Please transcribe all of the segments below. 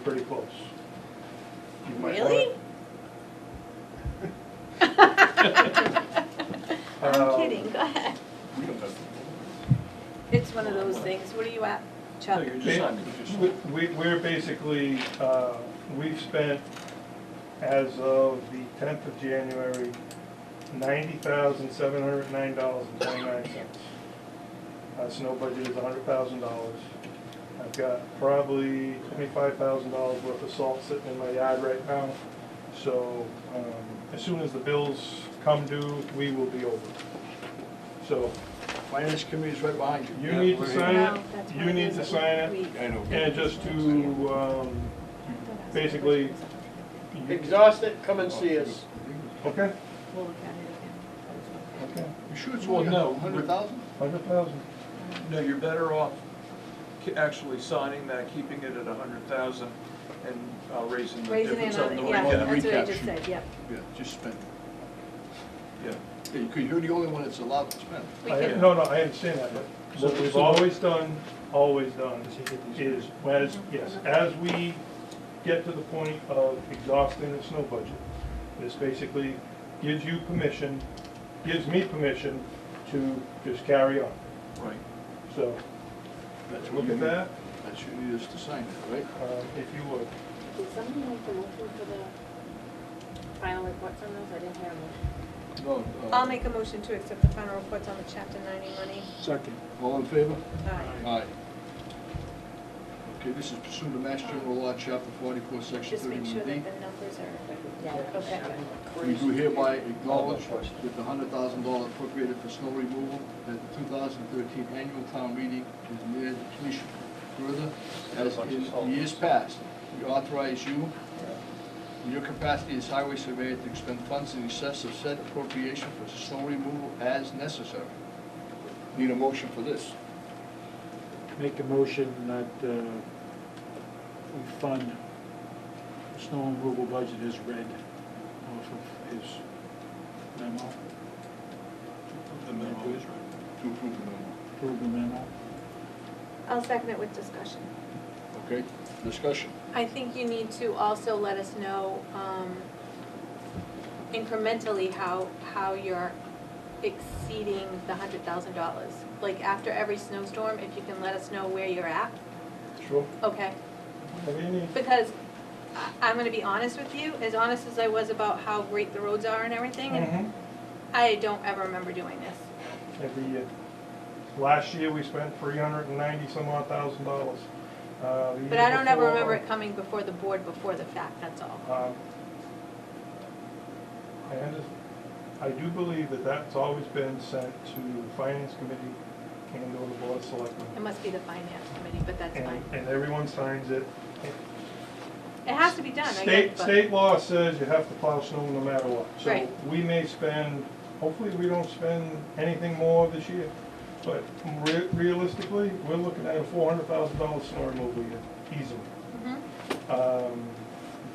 pretty close. You might wanna- Really? I'm Um, kidding, go ahead. It's one of those things, what are you at, Chuck? No, you're just- Ba- Simon, you just- we- We, we're basically, uh, we've spent, as of the tenth of January, ninety thousand, seven hundred and nine dollars and twenty-nine cents. Our snow budget is hundred thousand dollars. I've got probably twenty-five thousand dollars worth of salt sitting in my yard right now. So, um, as soon as the bills come due, we will be over. So, Finance committee's right behind you. You need to sign it. No, that's you one of need those to that sign we- I know. and just to, um, basically, you- Exhaust it, come and see us. Okay, We'll look at it okay, You sure it's Well, only no, a hundred thousand? hundred thousand. No, you're better off ki- actually signing that, keeping it at a hundred thousand and uh, raising again. the Raising difference it on on, the it, recap. yeah, that's what I recap just sheet. said, yep. Yeah, just spend Yeah. it. Yeah, Because you're the only one that's allowed to spend. We I- can, No, no, I understand that, but what we've always done, always done, is, as, yes, as we get to the point of exhausting the snow budget, this basically gives you permission, gives me permission to just carry on, Right. so, That's what look you at need- that, That's what you need us to sign it, right? um, if you would. Did somebody make the motion for the final reports on those? I didn't hear them. No. uh, I'll make a motion to accept the final reports on the chapter ninety money. Uh, Second. All in favor? Aye. Aye. Okay, this is pursuant to Mass General Law, Chapter forty-four, Section Just make thirty-one sure D. that the numbers are, Yeah. okay. We do hereby acknowledge that the hundred thousand dollar appropriated for snow removal at the two thousand thirteen annual town meeting is near completion. Further, as in years past, we authorize you, in your capacity as highway surveyor, to expend funds in excess of said appropriation for snow removal as necessary. Need a motion for this? Make a motion that uh, we fund snow removal budget as read off of his memo, The minimum is right. To approve the memo. approve the memo. I'll second it with discussion. Okay, discussion. I think you need to also let us know, um, incrementally how, how you're exceeding the hundred thousand dollars. Like after every snowstorm, if you can let us know where you're at, Sure. okay? Have any, Because I, I'm gonna be honest with you, as honest as I was about how great the roads are and everything, and Mhm. I don't ever remember doing this. every year. Last year, we spent three hundred and ninety some odd thousand dollars. Uh, the But year I don't ever before- remember it coming before the board, before the fact, that's all. Um, I under, I do believe that that's always been sent to the finance committee and or the board of selectmen. It must be the finance committee, but that's And- fine. And everyone signs it. It has to be done, I guess, State, but. state law says you have to plow snow no matter what. So Right. we may spend, hopefully we don't spend anything more this year. But re- realistically, we're looking at a four hundred thousand dollar snow removal year, easily. Mhm. Um,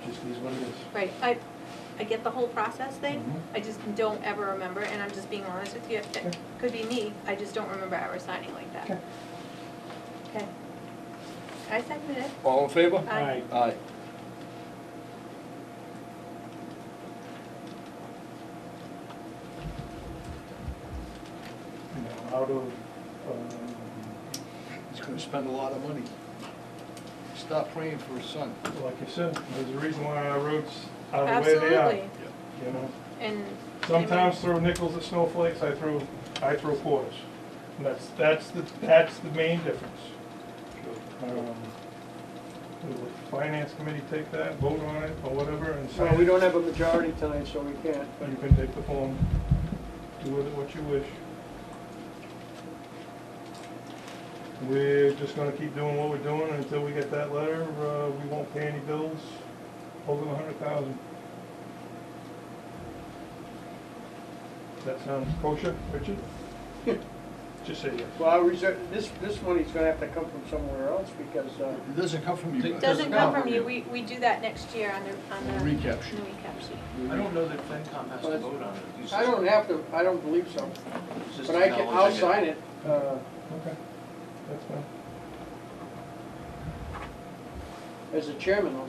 it just is what it is. Right, I, I get the whole process thing, I just don't ever remember, and I'm just being honest with you, Okay. it could be me, I just don't remember ever signing like Okay. that. Okay. I seconded it. All in favor? Aye. Aye. you know, out of, um, He's gonna spend a lot of money. Stop praying for his son. like you said, there's a reason why our roads are the way they are. Absolutely, You know, and. sometimes throw nickels at snowflakes, I throw, I throw quarters. And that's, that's the, that's the main difference. Um, Will the finance committee take that, vote on it, or whatever, and Well, sign we it? don't have a majority tonight, so we can't. You can take the form, do with it what you wish. We're just gonna keep doing what we're doing until we get that letter, uh, we won't pay any bills over the hundred thousand. That sounds kosher, Richard? Just say yes. Well, I reserve, this, this money's gonna have to come from somewhere else because, uh, It doesn't come from you guys. It Doesn't come from you, we, we do that next year on the, on the. Recap sheet. on the recap sheet. I don't know that FinCom has to vote on it. It's I don't have to, I don't believe so. just- it's But I just can, I'll acknowledging sign it. Uh, Okay, that's fine. as the chairman, I'll